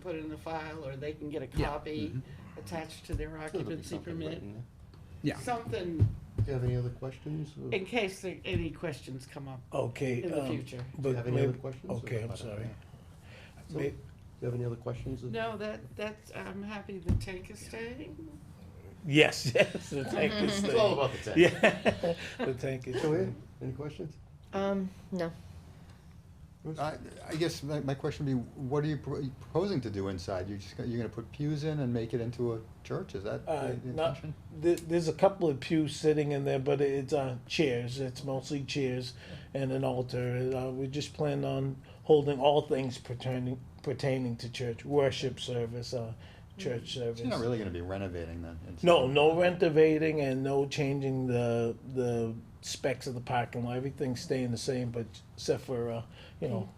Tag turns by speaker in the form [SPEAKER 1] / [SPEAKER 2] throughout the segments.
[SPEAKER 1] put it in the file, or they can get a
[SPEAKER 2] Yeah.
[SPEAKER 1] copy attached to their
[SPEAKER 3] Sure, there'll be
[SPEAKER 1] occupancy
[SPEAKER 3] something
[SPEAKER 1] permit.
[SPEAKER 3] written there.
[SPEAKER 2] Yeah.
[SPEAKER 1] Something,
[SPEAKER 3] Do you have any other questions? or-
[SPEAKER 1] in case there- any questions come up
[SPEAKER 4] Okay.
[SPEAKER 1] in the
[SPEAKER 4] um,
[SPEAKER 1] future.
[SPEAKER 3] Do you
[SPEAKER 4] but
[SPEAKER 3] have any other
[SPEAKER 4] maybe-
[SPEAKER 3] questions?
[SPEAKER 4] Okay, I'm
[SPEAKER 3] About that,
[SPEAKER 4] sorry.
[SPEAKER 3] yeah. So,
[SPEAKER 4] May-
[SPEAKER 3] Do you have any other questions?
[SPEAKER 1] No, that, that's, I'm happy the tank is staying.
[SPEAKER 4] Yes, yes, the tank is
[SPEAKER 1] Mm-hmm.
[SPEAKER 3] It's all
[SPEAKER 4] staying.
[SPEAKER 3] about the tank.
[SPEAKER 4] Yeah, the tank is
[SPEAKER 3] Go
[SPEAKER 4] staying.
[SPEAKER 3] ahead, any questions?
[SPEAKER 5] Um, no.
[SPEAKER 3] Bruce?
[SPEAKER 6] I, I guess my, my question would be, what are you pro- you proposing to do inside? You're just, gonna- you're gonna put pews in and make it into a church, is that
[SPEAKER 4] Uh,
[SPEAKER 6] the the
[SPEAKER 4] not,
[SPEAKER 6] intention?
[SPEAKER 4] there, there's a couple of pews sitting in there, but it's uh, chairs. It's mostly chairs and an altar. Uh, we just plan on holding all things pertaining pertaining to church worship service, uh,
[SPEAKER 3] Mm.
[SPEAKER 4] church service.
[SPEAKER 6] So you're not really gonna be renovating then? inside?
[SPEAKER 4] No, no renovating and no changing the the specs of the parking lot. Everything's staying the same, but except for uh, you know,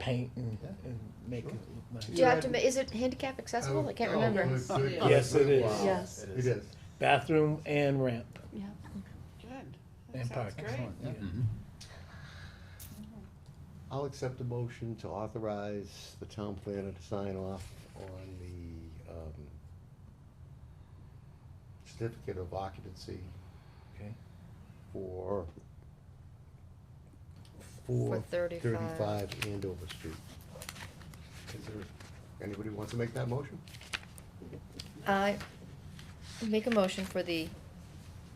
[SPEAKER 4] paint and,
[SPEAKER 6] Yeah.
[SPEAKER 4] and make
[SPEAKER 3] Sure.
[SPEAKER 4] it look
[SPEAKER 5] Do
[SPEAKER 4] nice.
[SPEAKER 5] you have to, ma- is it handicap
[SPEAKER 3] Oh,
[SPEAKER 5] accessible? I can't remember.
[SPEAKER 3] uh,
[SPEAKER 4] Yes, it is.
[SPEAKER 3] Wow.
[SPEAKER 5] Yes.
[SPEAKER 3] It is.
[SPEAKER 4] Bathroom and ramp.
[SPEAKER 5] Yeah.
[SPEAKER 1] Good. That
[SPEAKER 4] And
[SPEAKER 1] sounds
[SPEAKER 4] parking.
[SPEAKER 1] great.
[SPEAKER 6] Yeah.
[SPEAKER 2] Mm-hmm.
[SPEAKER 3] I'll accept a motion to authorize the town planner to sign off on the, um, certificate of occupancy
[SPEAKER 4] Okay.
[SPEAKER 3] for,
[SPEAKER 5] For
[SPEAKER 3] for
[SPEAKER 5] 35.
[SPEAKER 3] thirty-five Andover Street. Is there, anybody wants to make that motion?
[SPEAKER 5] I make a motion for the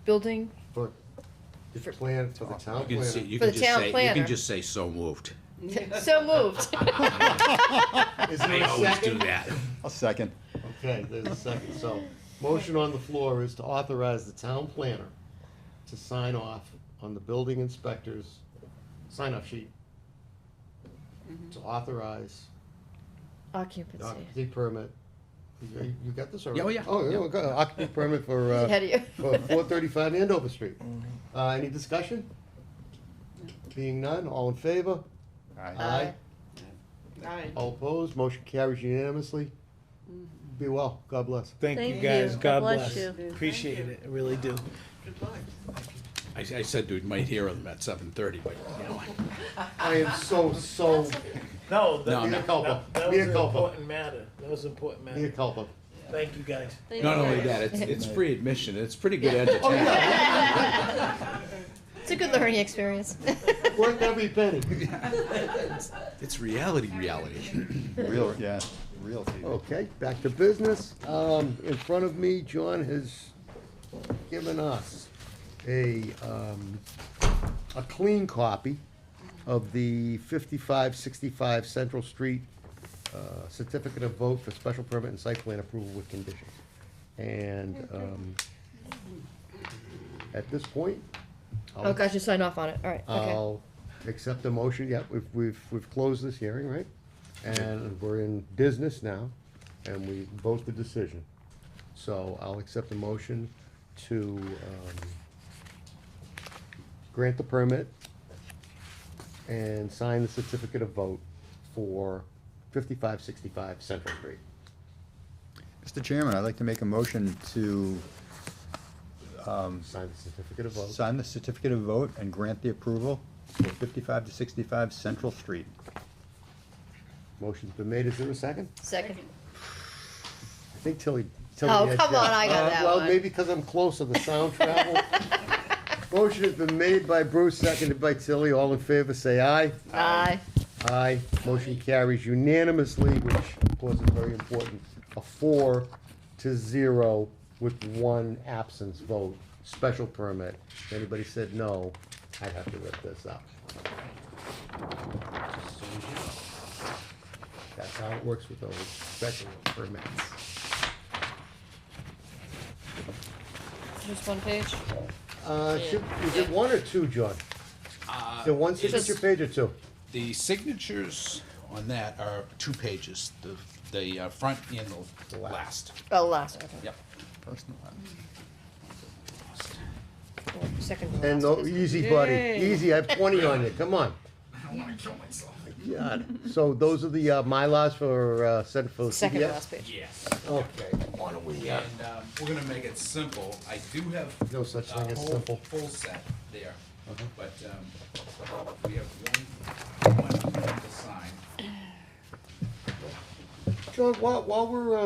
[SPEAKER 5] building,
[SPEAKER 3] For, the
[SPEAKER 5] For-
[SPEAKER 3] plan for the town
[SPEAKER 2] Oh, You can say,
[SPEAKER 3] planner.
[SPEAKER 2] you
[SPEAKER 5] For
[SPEAKER 2] can
[SPEAKER 5] the
[SPEAKER 2] just
[SPEAKER 5] town
[SPEAKER 2] say, you
[SPEAKER 5] planner.
[SPEAKER 2] can just say so moved.
[SPEAKER 5] so moved.
[SPEAKER 3] Is
[SPEAKER 2] They
[SPEAKER 3] there a
[SPEAKER 2] always do
[SPEAKER 3] second?
[SPEAKER 2] that.
[SPEAKER 6] I'll second.
[SPEAKER 3] Okay, there's a second, so, motion on the floor is to authorize the town planner to sign off on the building inspector's sign-off sheet. To authorize the
[SPEAKER 5] Occupancy.
[SPEAKER 3] occupancy permit, you, you got this already?
[SPEAKER 2] Yeah, oh, yeah.
[SPEAKER 3] Oh, yeah, okay, occupancy permit for,
[SPEAKER 5] Ahead
[SPEAKER 3] uh,
[SPEAKER 5] of
[SPEAKER 3] for
[SPEAKER 5] you.
[SPEAKER 3] four thirty-five Andover Street. Uh, any discussion? Being none, all in favor?
[SPEAKER 5] Aye.
[SPEAKER 1] Aye.
[SPEAKER 3] All opposed, motion carries unanimously. Be well, God bless.
[SPEAKER 4] Thank, you
[SPEAKER 7] Thank
[SPEAKER 4] guys.
[SPEAKER 7] you.
[SPEAKER 4] God
[SPEAKER 7] God bless
[SPEAKER 4] bless.
[SPEAKER 7] you.
[SPEAKER 4] Appreciate
[SPEAKER 1] Thank you.
[SPEAKER 4] it. I really do.
[SPEAKER 1] Good luck.
[SPEAKER 2] I, I said we might hear them at seven thirty, but, you know,
[SPEAKER 3] I am so, so,
[SPEAKER 4] No,
[SPEAKER 2] No,
[SPEAKER 4] that,
[SPEAKER 2] no.
[SPEAKER 3] mea culpa,
[SPEAKER 4] that- that
[SPEAKER 3] mea
[SPEAKER 4] was an
[SPEAKER 3] culpa,
[SPEAKER 4] important matter. That was an important matter.
[SPEAKER 3] mea culpa.
[SPEAKER 4] Thank you guys.
[SPEAKER 2] not only that, it's, it's free admission, it's pretty good
[SPEAKER 3] Oh,
[SPEAKER 2] entertainment.
[SPEAKER 3] yeah,
[SPEAKER 5] It's a good learning experience.
[SPEAKER 3] worth every penny.
[SPEAKER 2] It's reality, reality.
[SPEAKER 6] Real, yeah, real TV.
[SPEAKER 3] Okay, back to business. Um, in front of me, John has given us a, um, a clean copy of the fifty-five sixty-five Central Street, uh, certificate of vote for special permit and site plan approval with conditions. And, um, at this point, I'll
[SPEAKER 5] Oh gosh, you signed off on it. All right, okay.
[SPEAKER 3] I'll accept the motion, yep, we've, we've, we've closed this hearing, right? And we're in business now, and we vote the decision. So I'll accept the motion to, um, grant the permit and sign the certificate of vote for fifty-five sixty-five Central Street.
[SPEAKER 6] Mr. Chairman, I'd like to make a motion to
[SPEAKER 3] Sign the certificate of vote.
[SPEAKER 6] sign the certificate of vote and grant the approval for fifty-five to sixty-five Central Street.
[SPEAKER 3] Motion's been made, is there a second?
[SPEAKER 5] Second.
[SPEAKER 3] I think Tilly. Tilly
[SPEAKER 5] Oh,
[SPEAKER 3] had
[SPEAKER 5] come
[SPEAKER 3] that.
[SPEAKER 5] on, I got
[SPEAKER 3] Uh,
[SPEAKER 5] that
[SPEAKER 3] Well,
[SPEAKER 5] one.
[SPEAKER 3] maybe because I'm closer, the sound travel. Motion has been made by Bruce, seconded by Tilly. All in favor, say aye.
[SPEAKER 5] Aye.
[SPEAKER 3] Aye. Motion carries unanimously, which of course is very important. A four to zero with one absence vote, special permit. If anybody said no, I'd have to rip this up. That's how it works with those special permits.
[SPEAKER 5] Just one page.
[SPEAKER 3] Uh, should, is it one or two, John?
[SPEAKER 5] Uh,
[SPEAKER 3] The one signature
[SPEAKER 2] it's-
[SPEAKER 3] page or two?
[SPEAKER 2] The signatures on that are two pages, the, the uh, front and the last.
[SPEAKER 5] Oh, last, okay.
[SPEAKER 2] Yep.
[SPEAKER 6] Personal one.
[SPEAKER 5] Well, Second to
[SPEAKER 3] And
[SPEAKER 5] last
[SPEAKER 3] the,
[SPEAKER 5] is-
[SPEAKER 3] easy, buddy, easy, I have twenty on you, come on. God, so those are the, uh, Mylars for, uh, sent for
[SPEAKER 5] Second to
[SPEAKER 3] CBS?
[SPEAKER 5] last page.
[SPEAKER 2] Yes.
[SPEAKER 3] Okay,
[SPEAKER 2] And um, we're gonna make it simple. I do have.
[SPEAKER 3] No such
[SPEAKER 2] a
[SPEAKER 3] thing as
[SPEAKER 2] whole-
[SPEAKER 3] simple. Uh-huh.
[SPEAKER 2] Full set there, but um, we have one, one email to sign.
[SPEAKER 3] John, while, while we're, uh,